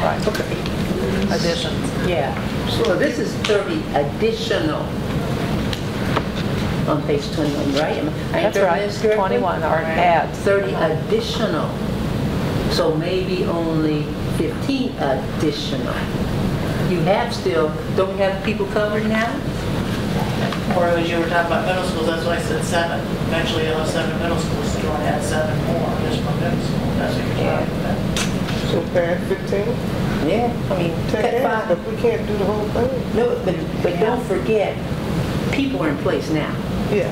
Right. Okay. additions. Yeah. So this is 30 additional on page 21, right? Am I- I That's interpreting right, this correctly? 21 are adds. 30 additional. So maybe only 15 additional. You have still, don't we have people covered now? Or as you were talking about middle schools, that's why I said seven. Eventually, you'll have seven middle schools, you want to add seven more, just from middle school, that's what you're talking about. So pad 15, Yeah. I mean, take cut half, five. but we can't do the whole thing. No, but, but don't forget, people are in place now. Yeah,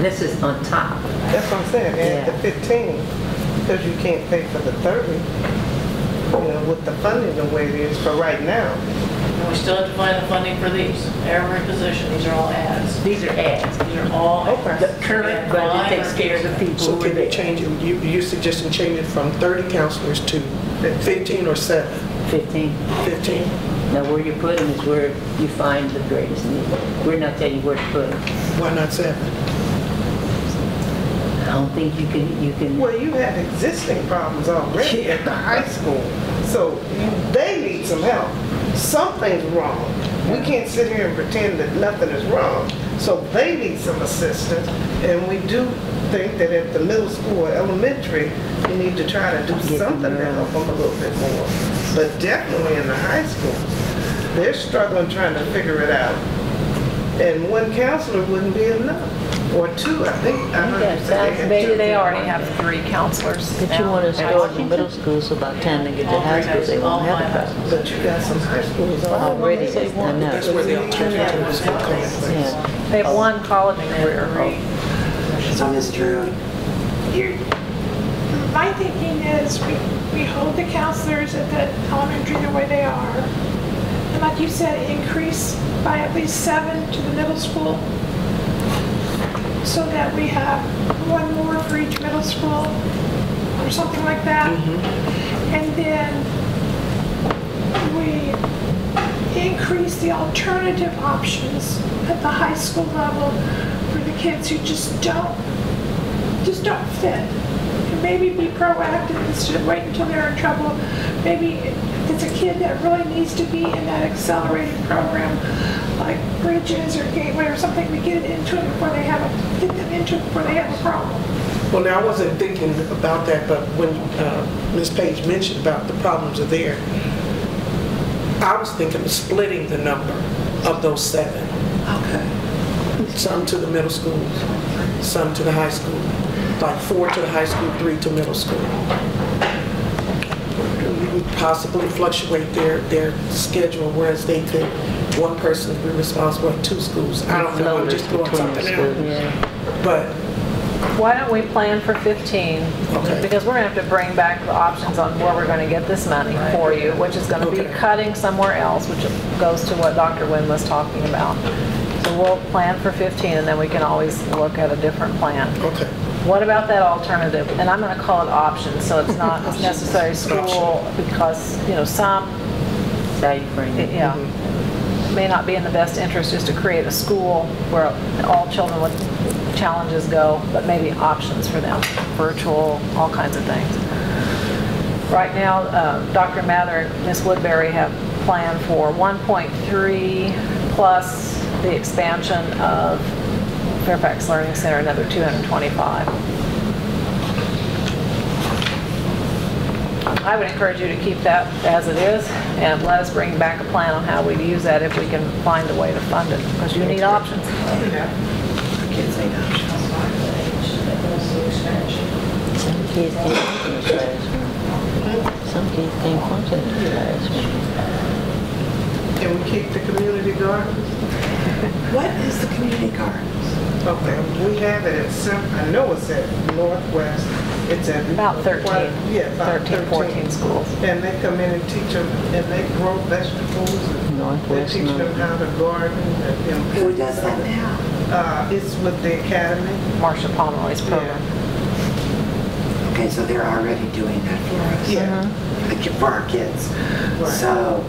This is on top. that's what I'm saying, add Yeah. the 15, because you can't pay for the 30, you know, with the funding the way it is for right now. And we still have to find the funding for these, every position, these are all adds. These are ads. These are all Okay. The adds. Oh, current budget takes care of the people So who are can they there. change it, you, you suggesting change it from 30 counselors to 15 or 7? 15. 15? Now, where you put them is where you find the greatest need. We're not telling you where to put them. Why not 7? I don't think you can, you can, Well, you have existing problems already at the high school, so you- they need some help. Something's wrong. We can't sit here and pretend that nothing is wrong. So they need some assistance, and we do think that at the middle school or elementary, we need to try to do something to help them a little bit more. But definitely in the high school, they're struggling trying to figure it out. And one counselor wouldn't be enough, or two, I think. I heard Yeah, you say they had sounds- two. They already have three counselors But you now. want to start in the middle school, so by the time they get to high school, they won't have a problem. But you got some high schools Already, already. I That's know. where the alternative is going to come in place. Yeah. They have one college career. So, Ms. Drew, you My thinking is we, we hold the counselors at the elementary the way they are. And like you said, increase by at least seven to the middle school so that we have one more for each middle school or something like that. And then we increase the alternative options at the high school level for the kids who just don't, just don't fit. And maybe be proactive instead of waiting until they're in trouble. Maybe if it's a kid that really needs to be in that accelerated program, like Bridges or Gateway or something, we get it into it before they have, a get them into it before they have a problem. Well, now, I wasn't thinking about that, but when uh, Ms. Page mentioned about the problems are there, I was thinking of splitting the number of those seven. Okay. Some to the middle schools, some to the high school, like four to the high school, three to middle school. We would possibly fluctuate their, their schedule, whereas they could, one person be responsible at two schools. I don't know, I'm Floaters just throwing between the something out. schools. But Oh. Why don't we plan for 15? Okay. Because we're going to have to bring back the options on where we're going to get this money for you, which is going to be Okay. cutting somewhere else, which goes to what Dr. Wynn was talking about. So we'll plan for 15, and then we can always look at a different plan. Okay, What about that alternative? And I'm going to call it options, so it's not necessary school, because, you know, some, how you frame it. yeah, may not be in the best interest just to create a school where all children with challenges go, but maybe options for them, virtual, all kinds of things. Right now, uh, Dr. Mather and Ms. Woodbury have planned for 1.3 plus the expansion of Fairfax Learning Center, another 225. I would encourage you to keep that as it is and let us bring back a plan on how we'd use that if we can find a way to fund it, because you need options. Kids need options. Some kids can't come to the classroom. Some kids can't come to the classroom. Can we keep the community gardens? what is the community gardens? Okay, we have it at some, I know it's at Northwest, it's at. About 13, Yeah, about 13, 14 schools. And they come in and teach them, and they grow vegetables, and they Northwest teach them North. how to garden. and, you know, Who does that now? Uh, it's with the academy. Marcia Pomeroy's program. Okay, so they're already doing that for us. Yeah, Like for our kids. Right. Uh-huh. So,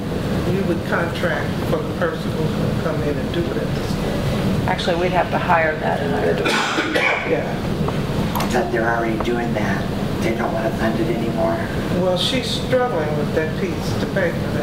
you would contract for the person who's gonna come in and do it at the school. Actually, we'd have to hire that individual. Yeah, that they're already doing that. they don't want to fund it anymore. Well, she's struggling with that piece to pay for that.